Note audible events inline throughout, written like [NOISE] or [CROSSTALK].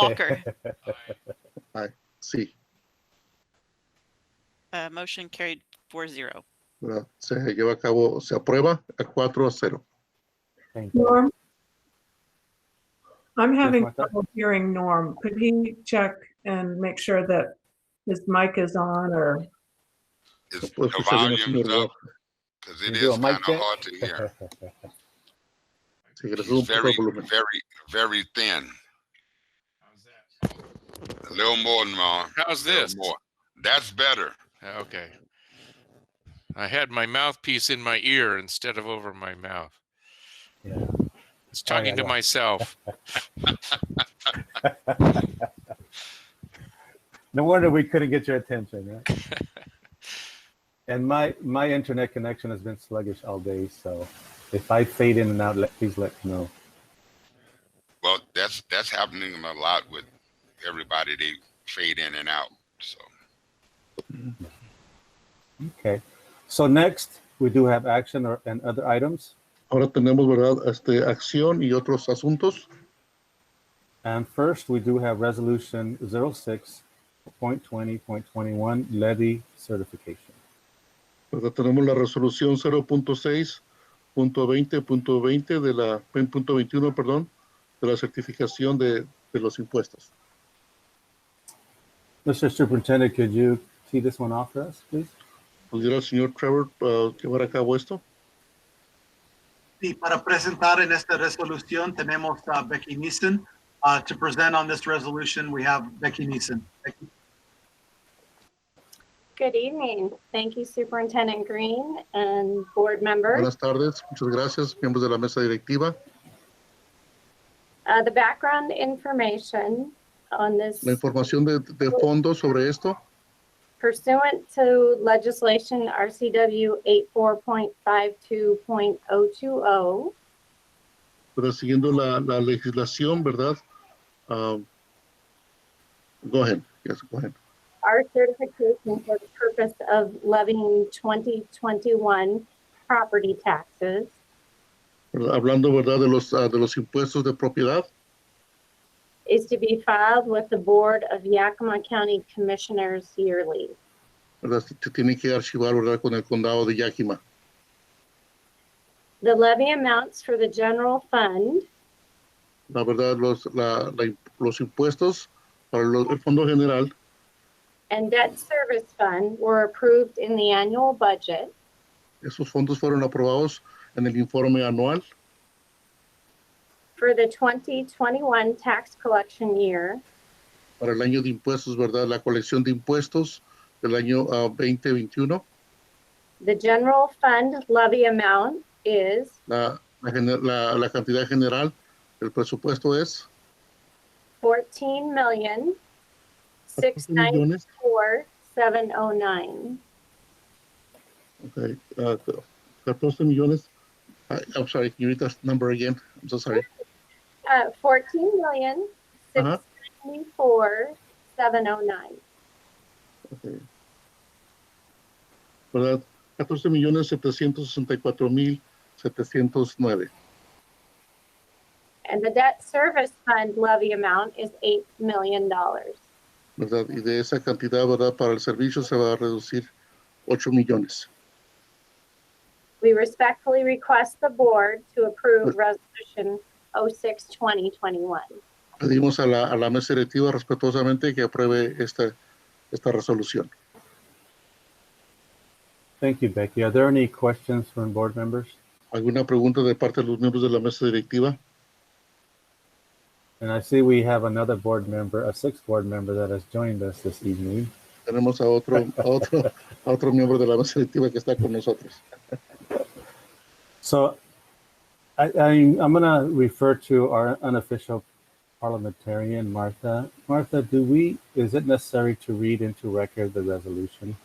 Walker. Sí, Uh, motion carried four zero. ¿verdad? se lleva a cabo, se aprueba a 4 a 0. Thank you. Norm? I'm having Martha? trouble hearing Norm. Could he check and make sure that his mic is on or, Is Puedo the escuchar bien al volume's señor up? Walker. Because it You is do a kind mic of check? hard [LAUGHS] to hear. Sí, que le He's suba un poco very, el volumen. very, very thin. A little more, Norm. How's A little this? Oh, more. That's better. Okay. I had my mouthpiece in my ear instead of over my mouth. Yeah. I was talking to yeah. myself. No wonder we couldn't get your attention, right? [LAUGHS] and my my internet connection has been sluggish all day, so if I fade in and out, let, please let me know. Well, that's, that's happening a lot with everybody. They fade in and out. So Okay. So next, we do have action or and other items, Ahora tenemos, ¿verdad? Este, acción y otros asuntos. and first we do have resolution 06.20.21 levy certification. ¿verdad? Tenemos la resolución 0.6.20.20 de la, 20.21, perdón, de la certificación de, de los impuestos. Mr. Superintendent, could you tee this one off for us, please? ¿Pudiera el señor Trevor ah, llevar a cabo esto? Sí, para presentar en esta resolución tenemos a Becky Neeson. Uh, to present on this resolution, we have Becky Neeson. Becky? Good evening. Thank you Superintendent Green and board members. Buenas tardes, muchas gracias, miembros de la mesa directiva. Uh, The background information on this La información de, de fondo sobre esto pursuant to legislation RCW 84.52.020, pero siguiendo la, la legislación, ¿verdad? Ah, go ahead, yes, go ahead. our certification for the purpose of levying 2021 property taxes ¿Verdad? Hablando, ¿verdad? De los, ah, de los impuestos de propiedad, is to be filed with the Board of Yakima County Commissioners yearly. ¿verdad? Se se tiene que archivar, ¿verdad? Con el condado de Yakima. The levy amounts for the general fund La verdad, los, la- la- los impuestos para los- el fondo general and debt service fund were approved in the annual budget, Esos fondos fueron aprobados en el informe anual for the 2021 tax collection year, para el año de impuestos, ¿verdad? La colección de impuestos del año ah, 2021. the general fund levy amount is La, la gener- la- la cantidad general del presupuesto es 14 million six 14 ninety millones. four seven oh nine. ok, ah, 14 millones. I- I'm sorry, can you read that number again? I'm so sorry. Uh, 14 million Uh-huh. six ninety four seven oh nine. ¿Verdad? 14 millones 764 mil 709. And the debt service fund levy amount is $8 million. ¿Verdad? Y de esa cantidad, ¿verdad? Para el servicio se va a reducir 8 millones. We respectfully request the board to approve Resolution 06, 2021. Pedimos a la, a la mesa directiva respetuosamente que apruebe esta, esta resolución. Thank you, Becky. Are there any questions from board members? ¿Alguna pregunta de parte de los miembros de la mesa directiva? And I see we have another board member, a sixth board member that has joined us this evening. Tenemos a otro, a otro, a otro miembro de la mesa directiva que está con nosotros. So I, I, I'm going to refer to our unofficial parliamentarian, Martha. Martha, do we, is it necessary to read into record the resolution?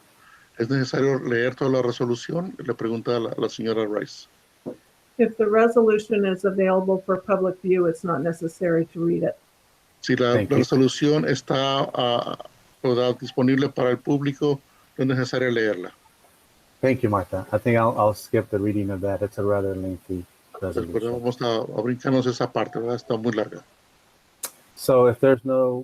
¿Es necesario leer toda la resolución? Le pregunta a la, a la señora Rice. if the resolution is available for public view, it's not necessary to read it. Si la, Thank la you. resolución está ah, ¿verdad? disponible para el público, no es necesario leerla. Thank you, Martha. I think I'll, I'll skip the reading of that. It's a rather lengthy Pero resolution. vamos a, a brincarnos esa parte, ¿verdad? está muy larga. So if there's no